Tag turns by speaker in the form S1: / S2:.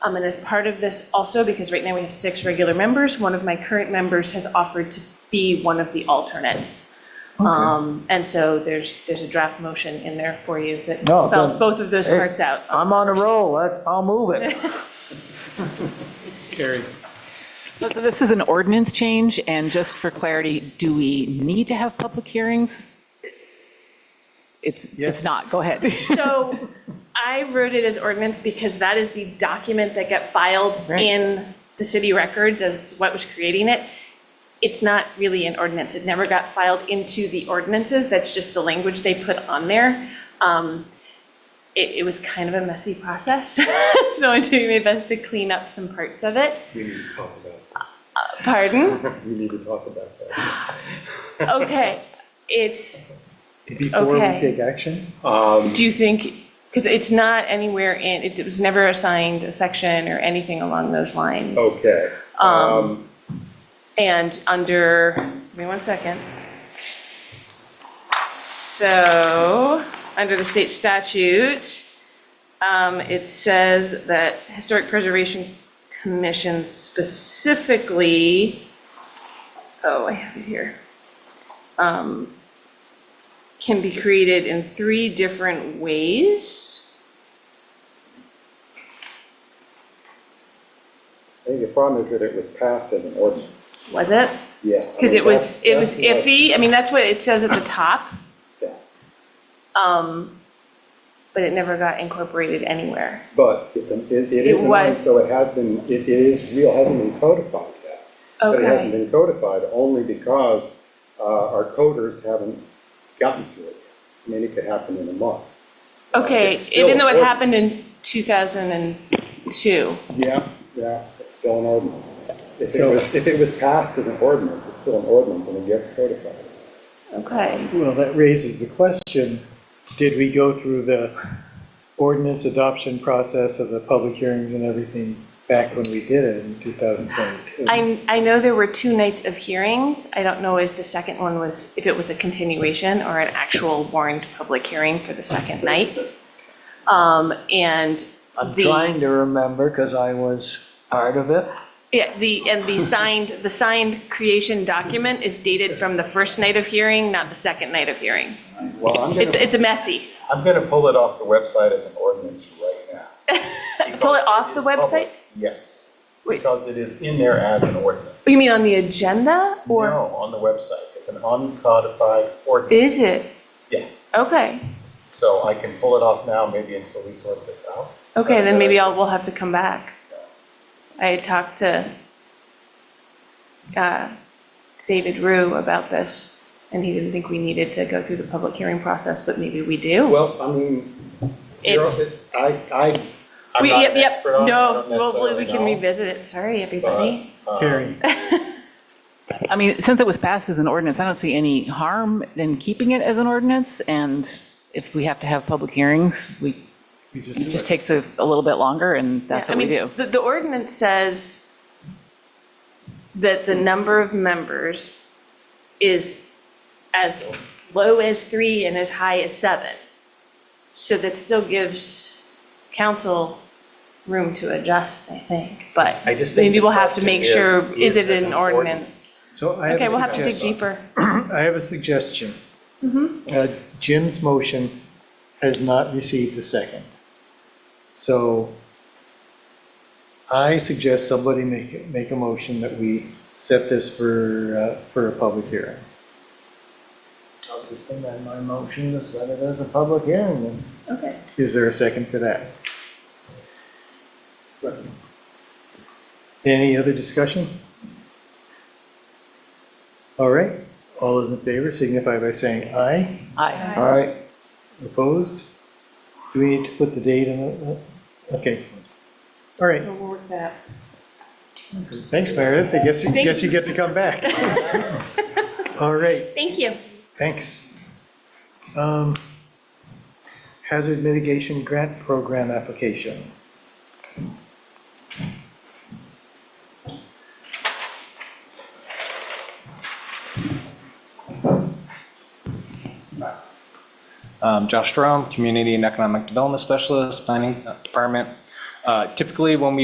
S1: Um, And as part of this also, because right now we have six regular members, one of my current members has offered to be one of the alternates. Um, And so there's, there's a draft motion in there for you that
S2: Oh, good.
S1: spells both of those
S2: Hey.
S1: parts out.
S2: I'm on a roll, I- I'll move it.
S3: Carried.
S4: So this is an ordinance change, and just for clarity, do we need to have public hearings? It's,
S2: Yes.
S4: it's not, go ahead.
S1: So I wrote it as ordinance because that is the document that got filed
S4: Right.
S1: in the city records as what was creating it. It's not really an ordinance. It never got filed into the ordinances. That's just the language they put on there. Um, It, it was kind of a messy process, so I'm doing my best to clean up some parts of it.
S3: We need to talk about,
S1: Pardon?
S3: that. we need to talk about that.
S1: Okay, it's,
S2: Before we
S1: Okay.
S2: take action?
S1: Do you think, because it's not anywhere in, it was never assigned a section or anything along those lines.
S3: Okay. Um,
S1: And under, give me one second. So, under the state statute, um, it says that Historic Preservation Commission specifically, oh, I have it here, um, can be created in three different ways.
S3: I think the problem is that it was passed as an ordinance.
S1: Was it?
S3: Yeah. I
S1: Because
S3: mean,
S1: it was,
S3: that's-
S1: it was
S3: that's what-
S1: iffy, I mean, that's what it says at the top,
S3: yeah.
S1: um, but it never got incorporated anywhere.
S3: But it's, an- it it
S1: It
S3: is an ordinance,
S1: was.
S3: so it has been, it it is real, hasn't been codified yet. But it hasn't
S1: Okay,
S3: been codified only because uh, our coders haven't gotten to it. I mean, it could happen in a month.
S1: okay,
S3: It's still
S1: even though it
S3: an
S1: happened in 2002,
S3: Yeah, yeah, it's still an ordinance. If it was, if it was passed as an ordinance, it's still an ordinance and it gets codified.
S1: okay.
S2: Well, that raises the question, did we go through the ordinance adoption process of the public hearings and everything back when we did it in 2022?
S1: I, I know there were two nights of hearings, I don't know if the second one was, if it was a continuation or an actual warned public hearing for the second night. Um, And
S5: I'm
S1: the-
S5: trying to remember because I was part of it.
S1: Yeah, the, and the signed, the signed creation document is dated from the first night of hearing, not the second night of hearing.
S3: Well, I'm
S1: It's, it's messy.
S3: I'm gonna pull it off the website as an ordinance right now.
S1: Pull it off the
S3: Because it
S1: website?
S3: is public. Yes,
S1: Wait.
S3: because it is in there as an ordinance.
S1: You mean on the agenda
S3: No,
S1: or?
S3: on the website, it's an uncodified ordinance,
S1: Is it?
S3: Yeah.
S1: Okay,
S3: so I can pull it off now, maybe until we sort this out.
S1: okay, then maybe I'll, we'll have to come back. I had talked to uh, David Rue about this, and he didn't think we needed to go through the public hearing process, but maybe we do.
S3: Well, I mean, zero,
S1: It's-
S3: it- I, I, I'm
S1: We-
S3: not
S1: yep,
S3: an
S1: yep,
S3: expert on it, I
S1: No,
S3: don't
S1: well, we
S3: necessarily
S1: can
S3: know,
S1: revisit it, sorry, everybody.
S3: but, um,
S2: Carrie,
S4: I mean, since it was passed as an ordinance, I don't see any harm in keeping it as an ordinance, and if we have to have public hearings, we,
S2: you just
S4: it
S2: do
S4: just
S2: it.
S4: takes a a little bit longer, and that's
S1: Yeah, I
S4: what we
S1: mean,
S4: do.
S1: The, the ordinance says that the number of members is as low as three and as high as seven. So that still gives council room to adjust, I think, but
S6: I just think
S1: maybe
S6: the
S1: we'll have to
S6: question
S1: make
S6: is,
S1: sure, is
S6: is
S1: it
S6: it
S1: an
S6: an
S1: ordinance?
S2: So I
S1: Okay,
S2: have
S1: we'll
S2: a
S1: have to dig
S2: suggestion.
S1: deeper.
S2: I have a suggestion. Uh, Jim's motion has not received a second. So I suggest somebody make, make a motion that we set this for, uh, for a public hearing.
S5: I'll just amend my motion to set it as a public hearing. then.
S1: Okay.
S2: Is there a second for that? Any other discussion? All right, all those in favor signify by saying aye.
S4: Aye.
S5: All right,
S2: Opposed? Do we need to put the date in? the- Okay. All right,
S1: We'll work that.
S2: thanks, Meredith. I guess, I
S1: Thank
S2: guess you get to come back. All right,
S1: Thank you.
S2: thanks. Um, Hazard mitigation grant program application.
S7: Um, Josh Jerome, Community and Economic Development Specialist, Planning Department. Uh, Typically, when we